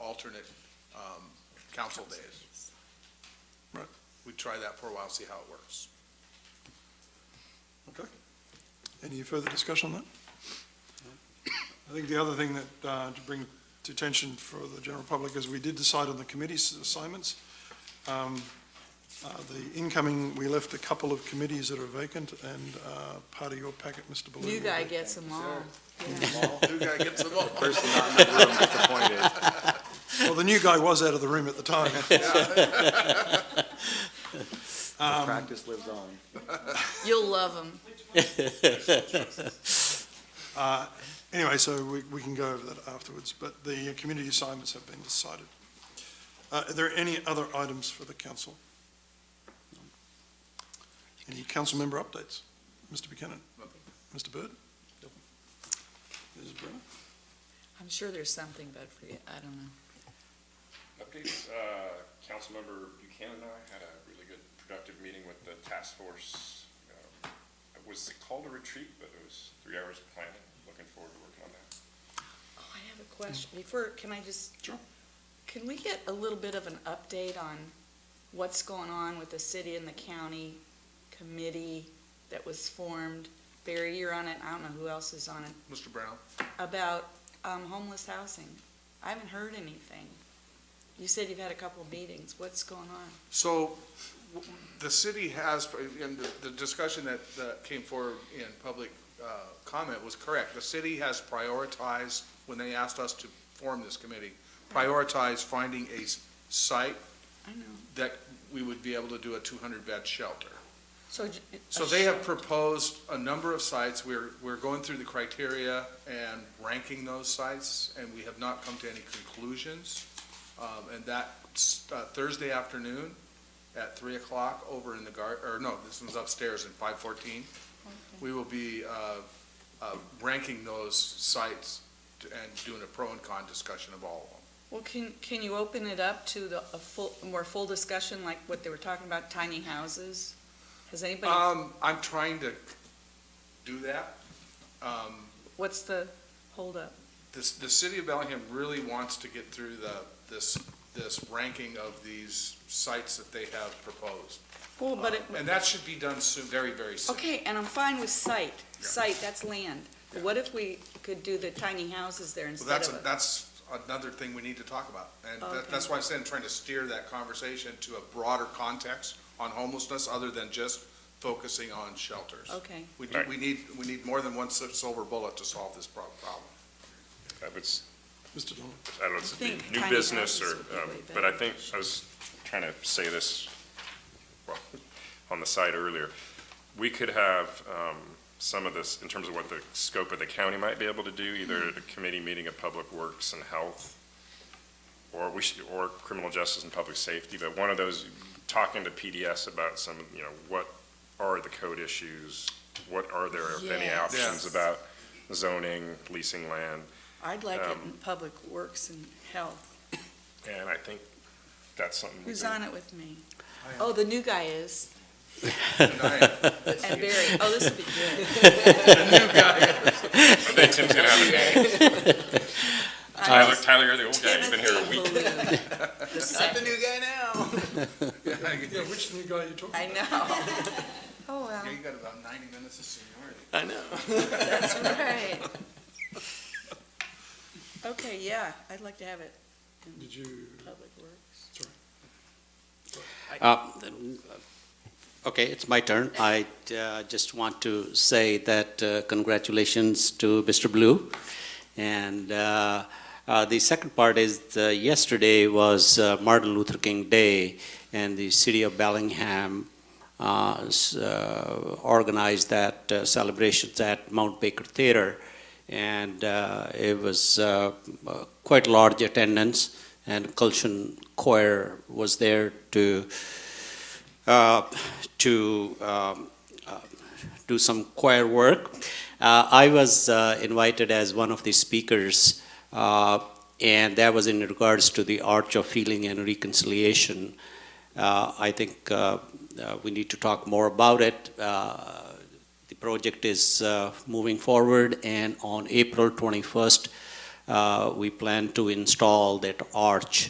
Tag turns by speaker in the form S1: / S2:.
S1: alternate um, council days.
S2: Right.
S1: We try that for a while, see how it works.
S2: Okay. Any further discussion on that? I think the other thing that, uh, to bring to attention for the general public is we did decide on the committee's assignments. Um, uh, The incoming, we left a couple of committees that are vacant, and uh, part of your packet, Mr. Baloo.
S3: New guy gets them all. Yeah.
S1: Who guy gets them all?
S4: Person not in the room is appointed.
S2: Well, the new guy was out of the room at the time.
S4: Practice lives on.
S3: You'll love them.
S2: Uh, Anyway, so we, we can go over that afterwards, but the community assignments have been decided. Uh, Are there any other items for the council? Any council member updates? Mr. Buchanan? Mr. Byrd? Ms. Brenner?
S3: I'm sure there's something, but for you, I don't know.
S5: Updates, uh, Councilmember Buchanan and I had a really good productive meeting with the task force. Um, It was called a retreat, but it was three hours of planning, looking forward to working on that.
S3: Oh, I have a question. Before, can I just?
S5: Sure.
S3: Can we get a little bit of an update on what's going on with the city and the county committee that was formed? Barry, you're on it. I don't know who else is on it,
S1: Mr. Brown?
S3: about um, homeless housing. I haven't heard anything. You said you've had a couple of meetings. What's going on?
S1: So w- the city has, and the- the discussion that, that came forward in public uh, comment was correct. The city has prioritized, when they asked us to form this committee, prioritized finding a s- site
S3: I know.
S1: that we would be able to do a 200-bed shelter.
S3: So. j-
S1: So they have proposed a number of sites. We're, we're going through the criteria and ranking those sites, and we have not come to any conclusions. Um, And that uh, Thursday afternoon at 3 o'clock over in the gar, or no, this one's upstairs in 514, we will be uh, uh, ranking those sites to- and doing a pro and con discussion of all of them.
S3: Well, can, can you open it up to the, a full, a more full discussion, like what they were talking about, tiny houses? Has anybody,
S1: Um, I'm trying to do that. Um,
S3: what's the holdup?
S1: this, the city of Bellingham really wants to get through the, this, this ranking of these sites that they have proposed.
S3: Well, but it,
S1: Uh, And that should be done soon, very, very soon.
S3: okay, and I'm fine with site,
S1: Yeah.
S3: site, that's land. But what if we could do the tiny houses there
S1: Well,
S3: instead
S1: that's,
S3: of a?
S1: that's another thing we need to talk about. And that-
S3: Okay.
S1: that's why I'm saying, trying to steer that conversation to a broader context on homelessness, other than just focusing on shelters.
S3: Okay,
S1: We, do- we need, we need more than one si- silver bullet to solve this prob- problem.
S5: I would, s-
S2: Mr. Donovan?
S5: I don't know, if
S3: I
S5: it'd
S3: think
S5: be new
S3: tiny
S5: business or,
S3: houses would be
S5: um,
S3: way
S5: but I
S3: better.
S5: think, I was trying to say this, well, on the side earlier. We could have, um, some of this, in terms of what the scope of the county might be able to do, either
S3: Hmm.
S5: a committee meeting of Public Works and Health, or we should, or Criminal Justice and Public Safety, but one of those, talking to PDS about some, you know, what are the code issues? What are there, if any,
S3: Yes.
S5: options
S1: Yeah.
S5: about zoning, leasing land?
S3: I'd like it in
S5: Um,
S3: Public Works and Health.
S5: And I think that's something. we
S3: Who's
S5: can-
S3: on it with me? Oh, the new guy is,
S1: And I-
S3: and Barry, oh, this would be good.
S5: I think Tim's gonna have it. Tyler, Tyler, you're the old guy, you've been here a
S3: Timothy
S5: week.
S3: Baloo, the second.
S1: new guy now.
S2: Yeah, which new guy are you talking
S3: I know. Oh, well.
S1: Yeah, you got about ninety minutes of seniority.
S3: That's right. Okay, yeah, I'd like to have it
S2: about? Did you,
S3: Public Works.
S6: Uh, Okay, it's my turn. I uh, just want to say that uh, congratulations to Mr. Blue. And uh, uh, the second part is, uh, yesterday was uh, Martin Luther King Day, and the city of Bellingham uh, s- uh, organized that uh, celebrations at Mount Baker Theater. And uh, it was uh, uh, quite large attendance, and Cultion Choir was there to uh, to um, uh, do some choir work. Uh, I was uh, invited as one of the speakers, uh, and that was in regards to the arch of healing and reconciliation. Uh, I think uh, uh, we need to talk more about it. Uh, the project is uh, moving forward, and on April 21st, uh, we plan to install that arch